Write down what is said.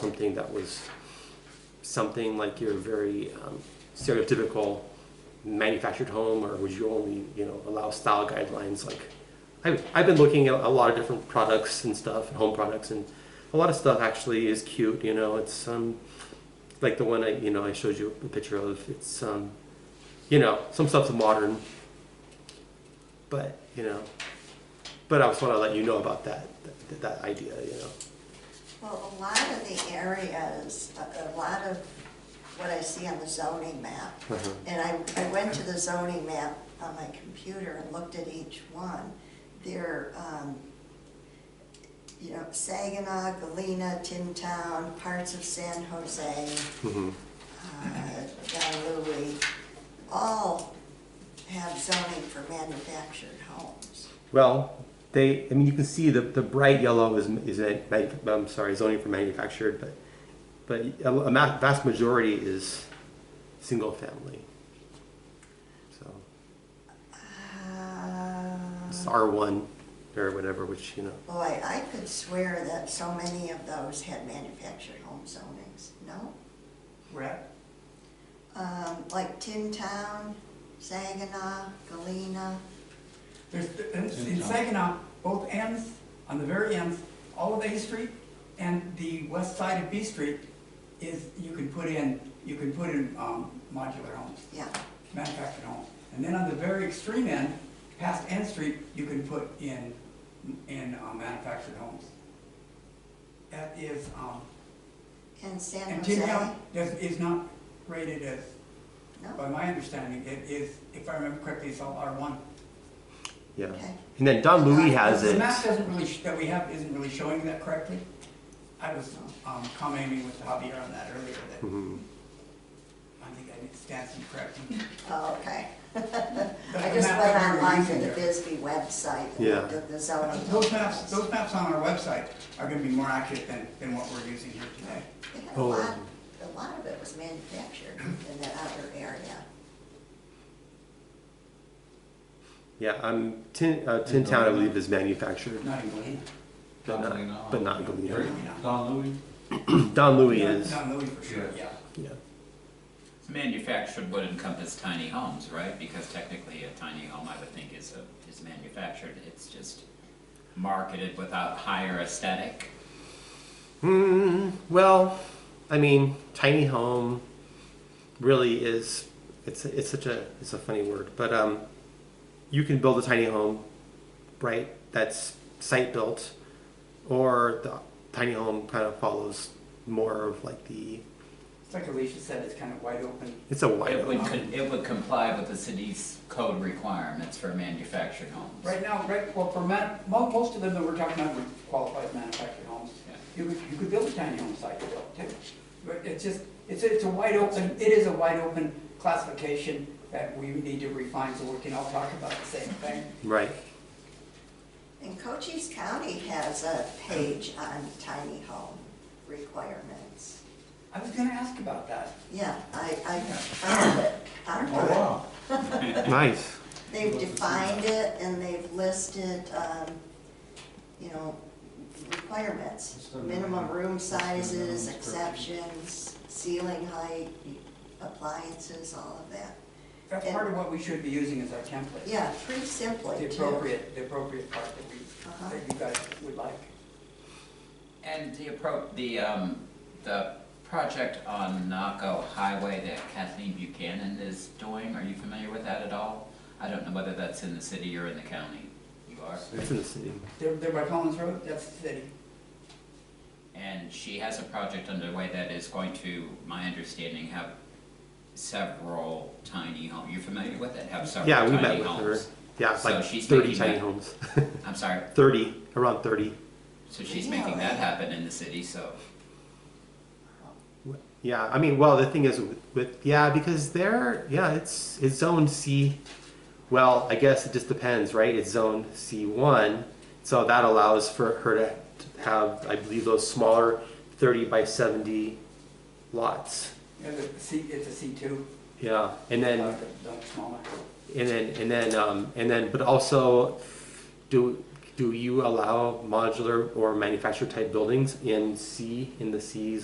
something that was something like your very um, stereotypical manufactured home, or would you only, you know, allow style guidelines? Like, I've, I've been looking at a lot of different products and stuff, and home products, and a lot of stuff actually is cute. You know, it's um, like the one I, you know, I showed you a picture of. It's um, you know, some stuff's modern, but you know, but I just want to let you know about that, that, that idea. You know. Well, a lot of the areas, a a lot of what I see on the zoning map, Uh-huh. and I, I went to the zoning map on my computer and looked at each one, they're, um, you know, Saginaw, Galena, Tin Town, parts of San Jose, hmm uh, Don Louis, all have zoning for manufactured homes. Well, they, I mean, you can see the, the bright yellow is, is a, mag- I'm sorry, zoning for manufactured, but, but a, a ma- vast majority is single family. So it's Uh, R1 or whatever, which, you know, Boy, I could swear that so many of those had manufactured home zonings, no? Right. Um, like Tin Town, Saginaw, Galena, There's, in in Saginaw, both ends, on the very ends, all of A Street and the west side of B Street is, you can put in, you can put in, um, modular homes, yeah. manufactured homes. And then on the very extreme end, past N Street, you can put in, in, um, manufactured homes. That is, um, And San and Tin Jose, Town does, is not rated as, by no? my understanding, it is, if I remember correctly, it's all R one. yeah. Okay. And then Don Louis has The it. map doesn't really, sh- that we have isn't really showing that correctly. I was um, commenting with Javier on that earlier, that Mhm. I think I did Stanson correctly. Oh, okay. But I the just map went that we were online to using the there- Bisbee website Yeah. and looked at the zoning. Those maps, those maps on our website are gonna be more accurate than, than what we're using here today. They had a Oh. lot, a lot of it was manufactured in that other area. Yeah, I'm, Tin, uh, Tin Town, I believe, is manufactured, Not in Galena. but not, but not Galena. Don Louis? Don Louis Not- is, Not Louis for sure, yeah. yeah. Manufactured would encompass tiny homes, right? Because technically a tiny home, I would think, is a, is manufactured. It's just marketed without higher aesthetic. Hmm. Well, I mean, tiny home really is. It's it's such a it's a funny word, but um, you can build a tiny home, right? That's site built, or the tiny home kind of follows more of like the. It's like Alicia said, it's kind of wide open. It's a wide It would, open. con- it would comply with the city's code requirements for manufactured homes. Right now, right, well, for man, mo- most of them that we're talking about were qualified manufactured homes. Yeah. You could, you could build a tiny home site yourself too. But it's just, it's, a- it's a wide open, it is a wide open classification that we need to refine so we can all talk about the same thing. Right. And Cochise County has a page on tiny home requirements. I was gonna ask about that. Yeah, I, I found it. online. Oh, wow. Nice. They've defined it and they've listed, um, you know, requirements, minimum room sizes, exceptions, ceiling height, appliances, all of that. That's part of what we should be using as our template. Yeah, pretty The simply too. appropriate, the appropriate part that Uh-huh. we, that you guys would like. And the appro, the, um, the project on Naco Highway that Kathleen Buchanan is doing, are you familiar with that at all? I don't know whether that's in the city or in the county. You are? It's in the city. They're, they're by Collins Road, that's the city. And she has a project underway that is going to, my understanding, have several tiny homes. You're familiar with it? Have several Yeah, tiny we homes. met with her. Yeah, So like she's thirty making tiny that- homes. I'm sorry. thirty, around thirty. So she's making that Really? happen in the city, so. Yeah, I mean, well, the thing is with, with yeah, because they're yeah, it's it's zone C. Well, I guess it just depends, right? It's zone C one, so that allows for her to have, I believe, those smaller thirty by seventy lots. And the C, it's a C two. Yeah, and then uh, the Smaller. and then and then um, and then, but also, do do you allow modular or manufactured type buildings in C in the C